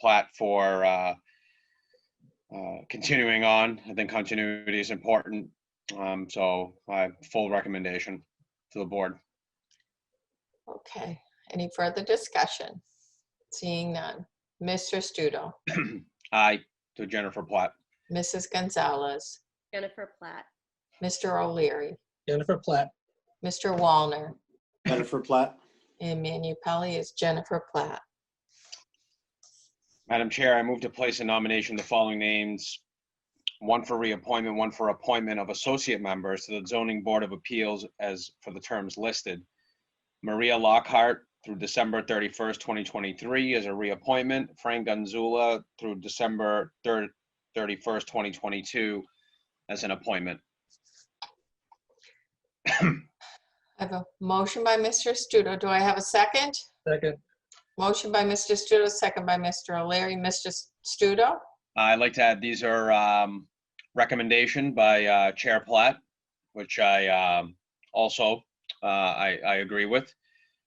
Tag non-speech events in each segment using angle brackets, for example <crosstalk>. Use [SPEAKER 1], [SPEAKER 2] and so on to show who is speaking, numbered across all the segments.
[SPEAKER 1] plat for uh, uh, continuing on. I think continuity is important. Um, So I, full recommendation to the board. <clears throat>
[SPEAKER 2] Okay, any further discussion? Seeing none. Mr. Studo,
[SPEAKER 1] Aye to Jennifer Platt.
[SPEAKER 2] Mrs. Gonzalez,
[SPEAKER 3] Jennifer Platt,
[SPEAKER 2] Mr. O'Leary,
[SPEAKER 4] Jennifer Platt,
[SPEAKER 2] Mr. Walner,
[SPEAKER 5] Jennifer Platt,
[SPEAKER 2] and Manu Pelley is Jennifer Platt.
[SPEAKER 1] Madam Chair, I move to place in nomination the following names. One for reappointment, one for appointment of associate members to the Zoning Board of Appeals as for the terms listed. Maria Lockhart through December 31st, 2023 is a reappointment. Frank Gonzula through December 3rd, 31st, 2022 as an appointment.
[SPEAKER 2] I have a motion by Mr. Studo. Do I have a second?
[SPEAKER 4] second.
[SPEAKER 2] Motion by Mr. Studo, second by Mr. O'Leary. Mr. Studo,
[SPEAKER 1] Uh, I'd like to add, these are um, recommendation by uh, Chair Platt, which I um, also, uh, I, I agree with.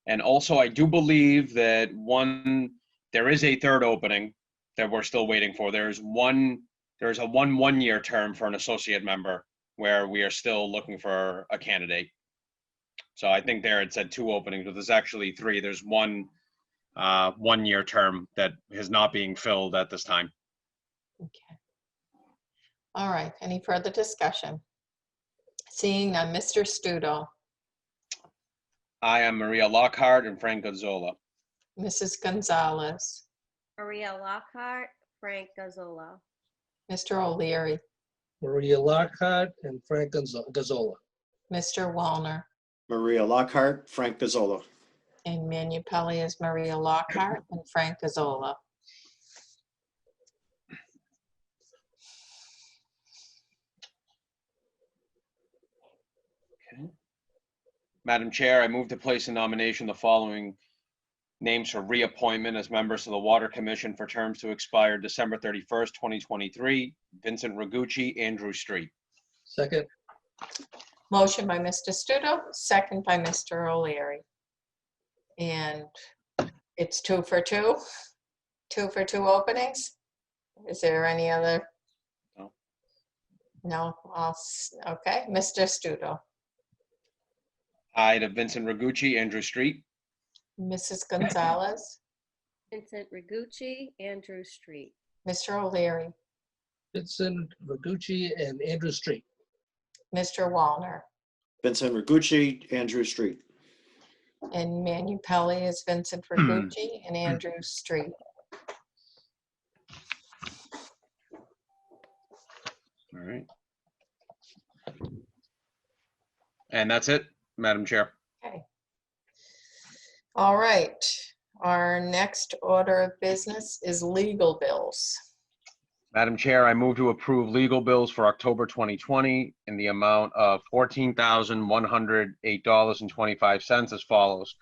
[SPEAKER 1] And also, I do believe that one, there is a third opening that we're still waiting for. There's one, there's a one, one-year term for an associate member where we are still looking for a candidate. So I think there it said two openings, but there's actually three. There's one, uh, one-year term that is not being filled at this time.
[SPEAKER 2] Okay. All right, any further discussion? Seeing none. Mr. Studo,
[SPEAKER 1] I am Maria Lockhart and Frank Gonzola.
[SPEAKER 2] Mrs. Gonzalez,
[SPEAKER 3] Maria Lockhart, Frank Gazzola,
[SPEAKER 2] Mr. O'Leary,
[SPEAKER 4] Maria Lockhart and Frank Gonzo- Gazzola.
[SPEAKER 2] Mr. Walner,
[SPEAKER 5] Maria Lockhart, Frank Pizzolo.
[SPEAKER 2] And Manu Pelley is Maria Lockhart and Frank Gazzola.
[SPEAKER 1] Madam Chair, I move to place in nomination the following names for reappointment as members of the Water Commission for terms to expire December 31st, 2023. Vincent Ragucci, Andrew Street.
[SPEAKER 4] Second,
[SPEAKER 2] Motion by Mr. Studo, second by Mr. O'Leary. And it's two for two, two for two openings. Is there any other?
[SPEAKER 1] No.
[SPEAKER 2] No, I'll s- okay, Mr. Studo,
[SPEAKER 1] Aye to Vincent Ragucci, Andrew Street.
[SPEAKER 2] Mrs. Gonzalez,
[SPEAKER 3] Vincent Rigucci, Andrew Street,
[SPEAKER 2] Mr. O'Leary,
[SPEAKER 4] Vincent Ragucci and Andrew Street.
[SPEAKER 2] Mr. Walner,
[SPEAKER 5] Vincent Rigucci, Andrew Street.
[SPEAKER 2] and Manu Pelley is Vincent Ragucci and Andrew Street.
[SPEAKER 1] All right. And that's it, Madam Chair.
[SPEAKER 2] All right, our next order of business is legal bills.
[SPEAKER 1] Madam Chair, I move to approve legal bills for October 2020 in the amount of $14,108.25 as follows.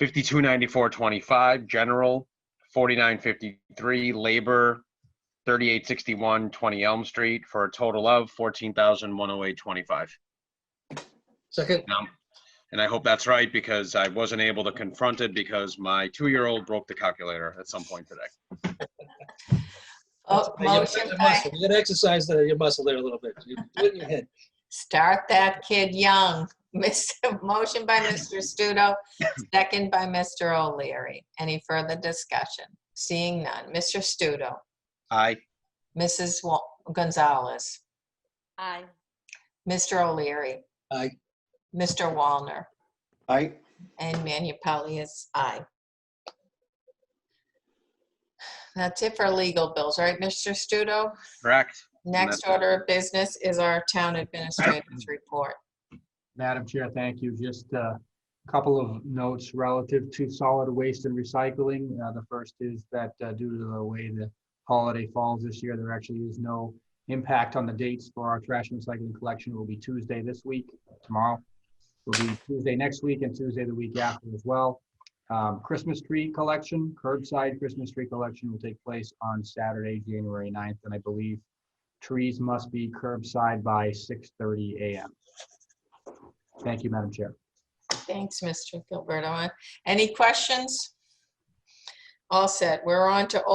[SPEAKER 1] 5294.25 general, 49.53 labor, 3861 20 Elm Street for a total of 14,108.25.
[SPEAKER 4] Second,
[SPEAKER 1] Now, And I hope that's right because I wasn't able to confront it because my two-year-old broke the calculator at some point today.
[SPEAKER 2] Oh,
[SPEAKER 4] You gotta
[SPEAKER 2] Motion
[SPEAKER 4] exercise that
[SPEAKER 2] by,
[SPEAKER 4] muscle. You gotta exercise that- your muscle there a little bit. You do it in your head.
[SPEAKER 2] start that kid young. <laughs> Miss, motion by Mr. Studo, <laughs> second by Mr. O'Leary. Any further discussion? Seeing none. Mr. Studo,
[SPEAKER 1] Aye.
[SPEAKER 2] Mrs. Wa- Gonzalez,
[SPEAKER 3] aye.
[SPEAKER 2] Mr. O'Leary,
[SPEAKER 4] Aye.
[SPEAKER 2] Mr. Walner,
[SPEAKER 5] Aye.
[SPEAKER 2] and Manu Pelley is aye. That's it for legal bills, right, Mr. Studo?
[SPEAKER 1] Correct?
[SPEAKER 2] Next
[SPEAKER 1] that's-
[SPEAKER 2] order of business is our town administrator's report.
[SPEAKER 6] Madam Chair, thank you. Just a couple of notes relative to solid waste and recycling. Uh, The first is that uh, due to the way the holiday falls this year, there actually is no impact on the dates for our trash and recycling collection. It will be Tuesday this week, tomorrow. It Will be Tuesday next week and Tuesday the week after as well. Um, Christmas tree collection, curbside Christmas tree collection will take place on Saturday, January 9th, and I believe trees must be curbside by 6:30 a.m. Thank you, Madam Chair.
[SPEAKER 2] Thanks, Mr. Gilberto. Any questions? All set. We're on to old